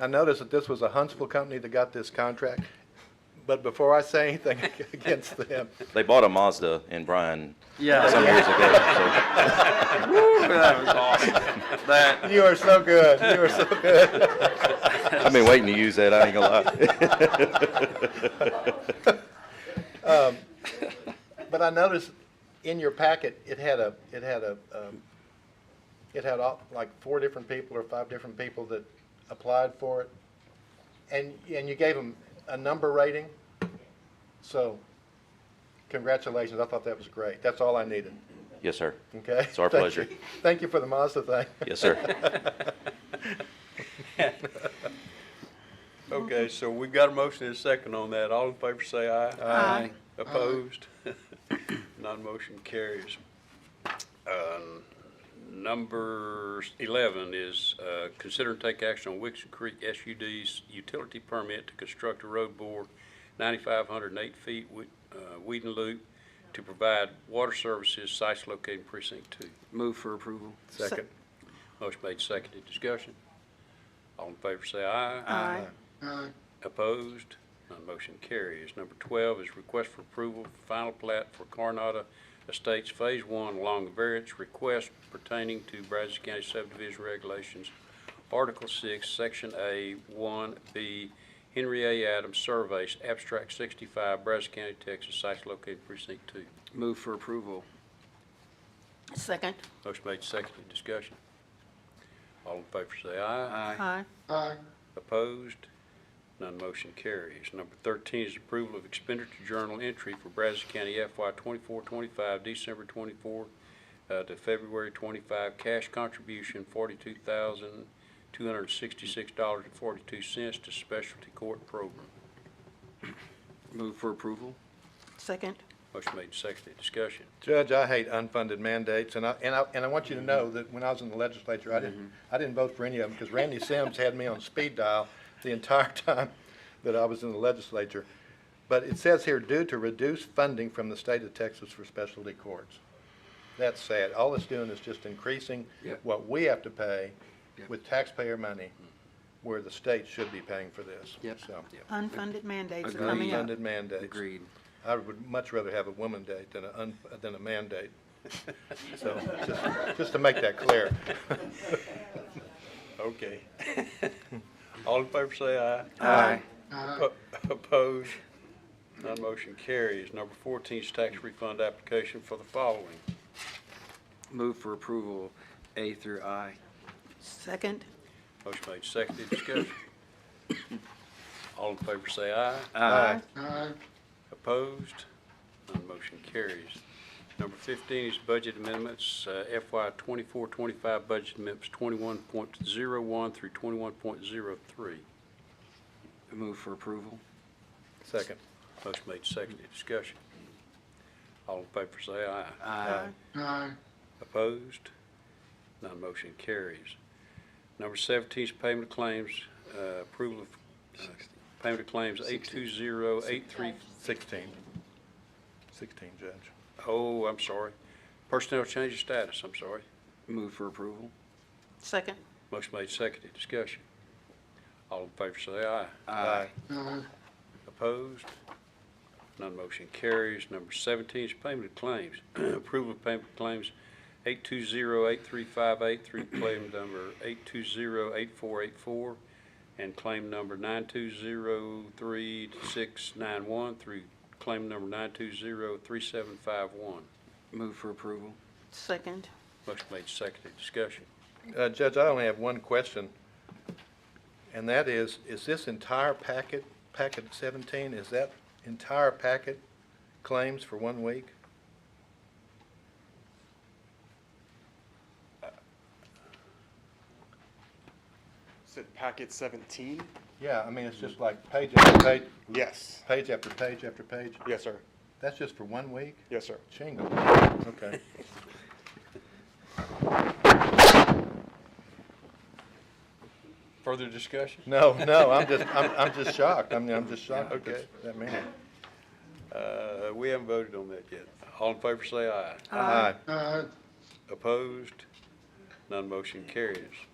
I noticed that this was a Huntsville company that got this contract, but before I say anything against them, They bought a Mazda in Bryan some Yeah. years ago, That was awesome. That, you are so good, you are so good. so I've been waiting to use that, I ain't gonna lie. But I noticed in your packet, it had a, it had a, um, it had all, like four different people or five different people that applied for it. And, and you gave them a number rating. So congratulations. I thought that was great. That's all I needed. Yes, sir. Okay? It's our Thank pleasure. you. Thank you for the Mazda thing. Yes, sir. Okay, so we've got a motion and a second on that. All in favor say aye. Aye. Opposed? Non-motion carries. Um, Number eleven is, uh, consider and take action on Wixon Creek SUD's utility permit to construct a road bore ninety-five hundred and eight feet, Whe- uh, Whedon Loop, to provide water services, sites located in precinct two. move for approval. Second. Motion made, seconded, discussion. All in favor say aye. Aye. Opposed? None motion carries. Number 12 is request for approval for final plat for Coronado Estates Phase 1 along the variance request pertaining to Brazos County subdivision regulations, Article 6, Section A, 1B, Henry A. Adams Surveys, Abstract 65, Brazos County, Texas, sites located precinct 2. Move for approval. Second. Motion made, seconded, discussion. All in favor say aye. Aye. Aye. Opposed? None motion carries. Number 13 is approval of expenditure journal entry for Brazos County FY 24-25, December 24 uh, to February 25, cash contribution $42,266.42 to specialty court program. Move for approval. Second. Motion made, seconded, discussion. Judge, I hate unfunded mandates, and I, and I, and I want you to know that when I was in the legislature, I Mm-hmm. didn't, I didn't vote for any of them, because Randy Sims had me on speed dial the entire time that I was in the legislature. But it says here, due to reduced funding from the state of Texas for specialty courts. That's sad. All it's doing is just increasing Yep. what we have to pay Yep. with taxpayer money, where the state should be paying for this. Yep. So, Unfunded mandates are coming up. unfunded mandates. Agreed. I would much rather have a woman date than a, un- than a man date. So, just, just to make that clear. Okay. All in favor say aye. Aye. Oppo- Opposed? None motion carries. Number 14 is tax refund application for the following. Move for approval, A through I. Second. Motion made, seconded, discussion. All in favor say aye. Aye. Opposed? None motion carries. Number 15 is budget amendments, uh, FY 24-25 budget amendments 21.01 through 21.03. Move for approval. Second. Motion made, seconded, discussion. All in favor say aye. Aye. Opposed? None motion carries. Number 17 is payment of claims, uh, approval of uh, payment of claims 820-835. Sixteen. Sixteen, Judge. Oh, I'm sorry. Personnel change of status, I'm sorry. Move for approval. Second. Motion made, seconded, discussion. All in favor say aye. Aye. Opposed? None motion carries. Number 17 is payment of claims. Approval of payment of claims 820-8358 through claim number 820-8484 and claim number 9203691 through claim number 9203751. Move for approval. Second. Motion made, seconded, discussion. Uh, Judge, I only have one question, and that is, is this entire packet, packet seventeen, is that entire packet claims for one week? Said packet 17? Yeah, I mean, it's just like page after page, Yes. page after page after page. Yes, sir. That's just for one week? Yes, sir. Shingle, okay. Further discussion? No, no, I'm just, I'm, I'm just shocked. I mean, I'm just shocked at that- that many. Uh, We haven't voted on that yet. All in Uh, favor say aye. Aye. Opposed? None motion carries.